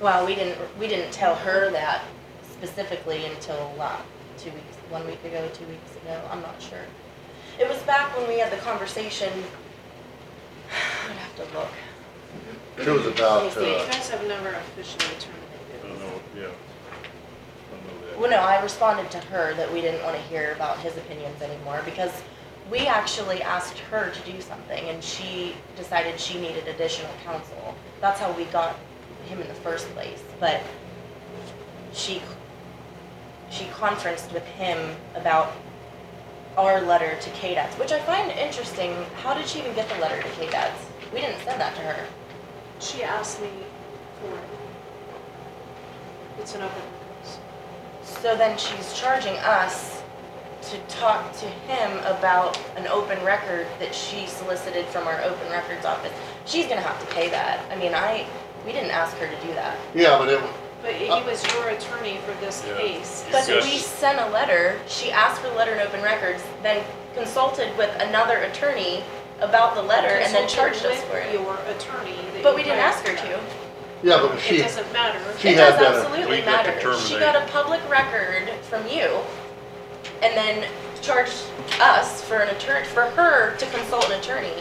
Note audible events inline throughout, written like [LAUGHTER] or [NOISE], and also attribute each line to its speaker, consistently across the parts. Speaker 1: Well, we didn't, we didn't tell her that specifically until, uh, two weeks, one week ago, two weeks ago, I'm not sure. It was back when we had the conversation, [SIGHS] I'd have to look.
Speaker 2: It was about,
Speaker 1: Let me
Speaker 2: uh,
Speaker 1: see.
Speaker 3: You guys have never officially terminated.
Speaker 4: I don't know, yeah. I don't know
Speaker 1: Well, no, I responded to her that we didn't wanna hear about his opinions anymore, because we actually asked her to do something, and she decided she needed additional counsel. That's how we got him in the first place, but she, she conferenced with him about our letter to KDETS, which I find interesting. How did she even get the letter to KDETS? We didn't send that to her.
Speaker 3: She asked me for it. It's an open request.
Speaker 1: So then she's charging us to talk to him about an open record that she solicited from our open records office. She's gonna have to pay that. I mean, I, we didn't ask her to do that.
Speaker 2: yeah, but it,
Speaker 3: But he
Speaker 2: Uh,
Speaker 3: was your attorney for this
Speaker 4: Yeah.
Speaker 3: case.
Speaker 1: But
Speaker 4: Yes.
Speaker 1: we sent a letter, she asked for the letter in open records, then consulted with another attorney about the letter and then charged us for
Speaker 3: Consulted
Speaker 1: it.
Speaker 3: With your attorney. that
Speaker 1: But we
Speaker 3: you
Speaker 1: didn't
Speaker 3: hired
Speaker 1: ask her to.
Speaker 2: yeah, but
Speaker 3: It
Speaker 2: she,
Speaker 3: doesn't matter.
Speaker 2: she
Speaker 1: It
Speaker 2: had uh,
Speaker 1: does
Speaker 2: done it.
Speaker 1: absolutely
Speaker 4: We get to
Speaker 1: matter. She
Speaker 4: terminate.
Speaker 1: got a public record from you and then charged us for an attorney, for her to consult an attorney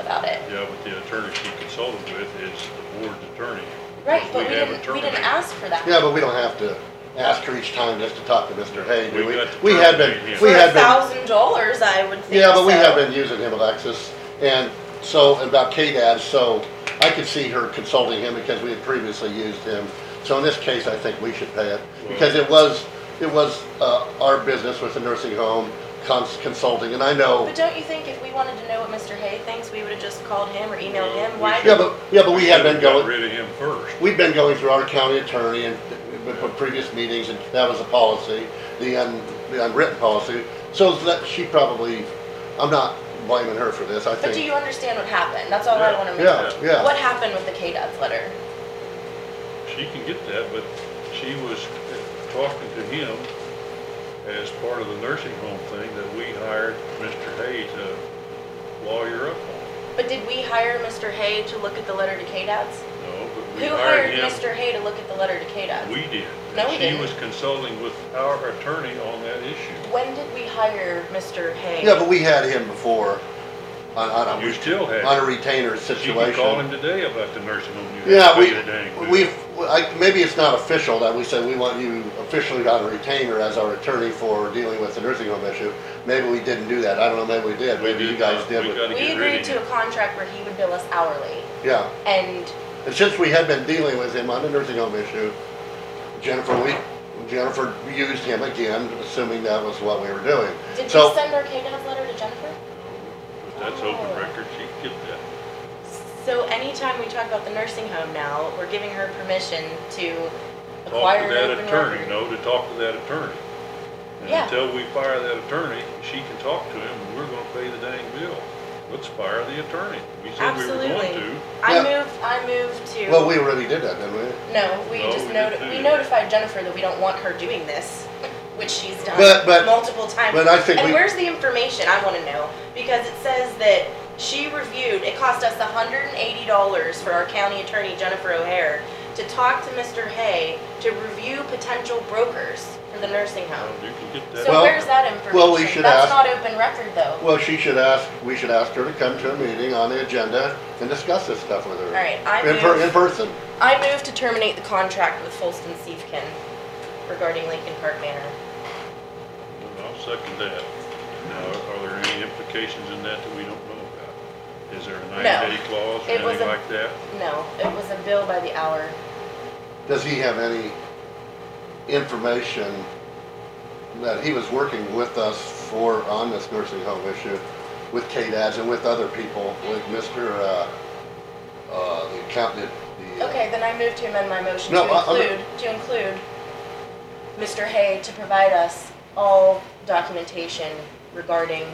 Speaker 1: about it.
Speaker 4: Yeah, but the attorney she consulted with is the board's attorney.
Speaker 1: Right,
Speaker 4: Because
Speaker 1: but we
Speaker 4: have a
Speaker 1: didn't, we
Speaker 4: terminate.
Speaker 1: didn't ask for that.
Speaker 2: yeah, but we don't have to ask her each time just to talk to Mr. Hay, do
Speaker 4: We
Speaker 2: we?
Speaker 4: got to
Speaker 2: We had been,
Speaker 4: terminate him.
Speaker 2: we
Speaker 1: For
Speaker 2: had
Speaker 1: a
Speaker 2: been,
Speaker 1: thousand dollars, I would think
Speaker 2: yeah, but we
Speaker 1: so.
Speaker 2: have been using him, Alexis, and so, and about KDAD, so I could see her consulting him because we had previously used him. So in this case, I think we should pay it, because it was, it was, uh, our business with the nursing home, cons- consulting, and I know.
Speaker 1: But don't you think if we wanted to know what Mr. Hay thinks, we would've just called him or emailed him? Why
Speaker 2: Yeah,
Speaker 1: did,
Speaker 2: but, yeah, but we had been
Speaker 4: should've got
Speaker 2: going.
Speaker 4: Rid of him first.
Speaker 2: We've been going through our county attorney and with- with previous meetings, and that was a policy, the un, the unwritten policy. So that, she probably, I'm not blaming her for this, I
Speaker 1: but do you
Speaker 2: think.
Speaker 1: understand what happened? That's all I
Speaker 4: Yeah,
Speaker 1: wanna make.
Speaker 2: Yeah, yeah,
Speaker 1: What happened with the KDA's letter?
Speaker 4: She can get that, but she was talking to him as part of the nursing home thing that we hired Mr. Hay to lawyer up on.
Speaker 1: But did we hire Mr. Hay to look at the letter to KDA's?
Speaker 4: No, but we
Speaker 1: Who hired
Speaker 4: hired him.
Speaker 1: Mr. Hay to look at the letter to KDOT?
Speaker 4: We did.
Speaker 1: No,
Speaker 4: and
Speaker 1: we
Speaker 4: She
Speaker 1: didn't.
Speaker 4: was consulting with our attorney on that issue.
Speaker 1: When did we hire Mr. Hay?
Speaker 2: yeah, but we had him before on, on
Speaker 4: You
Speaker 2: a,
Speaker 4: still had.
Speaker 2: on a retainer
Speaker 4: You can call
Speaker 2: situation.
Speaker 4: him today about the nursing home. you
Speaker 2: Yeah,
Speaker 4: have
Speaker 2: we,
Speaker 4: to pay the dang bill.
Speaker 2: we've, I, maybe it's not official that we said we want you officially on a retainer as our attorney for dealing with the nursing home issue. Maybe we didn't do that, I don't know, maybe we did,
Speaker 4: We
Speaker 2: maybe you
Speaker 4: did
Speaker 2: guys
Speaker 4: not.
Speaker 2: did,
Speaker 4: We
Speaker 2: but-
Speaker 4: got- gotta
Speaker 1: We
Speaker 4: get rid
Speaker 1: agreed
Speaker 4: of
Speaker 1: to a
Speaker 4: him.
Speaker 1: contract where he would bill us hourly,
Speaker 2: yeah.
Speaker 1: and
Speaker 2: And since we had been dealing with him on the nursing home issue, Jennifer, we, Jennifer used him again, assuming that was what we were doing.
Speaker 1: did you
Speaker 2: So-
Speaker 1: send our KDOT letter to Jennifer?
Speaker 4: But That's open record, she can get that.
Speaker 1: So anytime we talk about the nursing home now, we're giving her permission to
Speaker 4: Talk
Speaker 1: acquire
Speaker 4: to
Speaker 1: an
Speaker 4: that
Speaker 1: open
Speaker 4: attorney,
Speaker 1: record.
Speaker 4: no, to talk to that attorney. And
Speaker 1: Yeah.
Speaker 4: until we fire that attorney, she can talk to him, and we're gonna pay the dang bill. Let's fire the attorney. We said we were going
Speaker 1: Absolutely.
Speaker 4: to.
Speaker 1: I
Speaker 2: Yeah.
Speaker 1: moved, I moved to.
Speaker 2: Well, we already did that, didn't we?
Speaker 1: No, we
Speaker 4: No,
Speaker 1: just
Speaker 4: we
Speaker 1: noti,
Speaker 4: didn't do
Speaker 1: we
Speaker 4: that.
Speaker 1: notified Jennifer that we don't want her doing this, which she's done
Speaker 2: But- but-
Speaker 1: multiple times.
Speaker 2: but I think
Speaker 1: And
Speaker 2: we-
Speaker 1: where's the information? I wanna know, because it says that she reviewed, it cost us hundred and eighty dollars for our county attorney, Jennifer O'Hare, to talk to Mr. Hay to review potential brokers for the nursing home.
Speaker 4: You can get that.
Speaker 1: So
Speaker 2: Well-
Speaker 1: where's that information?
Speaker 2: well, we should
Speaker 1: That's
Speaker 2: ask-
Speaker 1: not open record though.
Speaker 2: Well, she should ask, we should ask her to come to a meeting on the agenda and discuss this stuff with her.
Speaker 1: All right, I
Speaker 2: In per, in
Speaker 1: move,
Speaker 2: person.
Speaker 1: I move to terminate the contract with Folston Siefkin regarding Lincoln Park Manor.
Speaker 4: And I'll second that. Now, are there any implications in that that we don't know about? Is there a ninety-day clause or
Speaker 1: It was
Speaker 4: anything
Speaker 1: a-
Speaker 4: like that?
Speaker 1: No, it was a bill by the hour.
Speaker 2: Does he have any information that he was working with us for, on this nursing home issue, with KDAS and with other people, with Mr., uh, uh, the accountant, the. uh,
Speaker 1: Okay, then I move to amend my motion to
Speaker 2: No, I- I'm-
Speaker 1: include, to include Mr. Hay to provide us all documentation regarding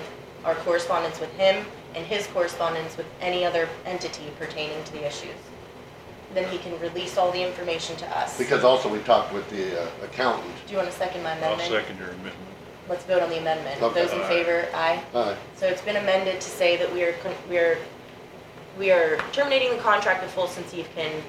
Speaker 1: our correspondence with him and his correspondence with any other entity pertaining to the issues. Then he can release all the information to us. Do
Speaker 2: Because also we talked with the uh, accountant.
Speaker 1: you want to second my
Speaker 4: I'll
Speaker 1: amendment?
Speaker 4: second your amendment.
Speaker 1: Let's vote on the amendment.
Speaker 2: Okay.
Speaker 1: Those in favor, aye.
Speaker 2: Hi.
Speaker 1: So it's been amended to say that we are, con- we are, we are terminating the contract with Folsom Sievkin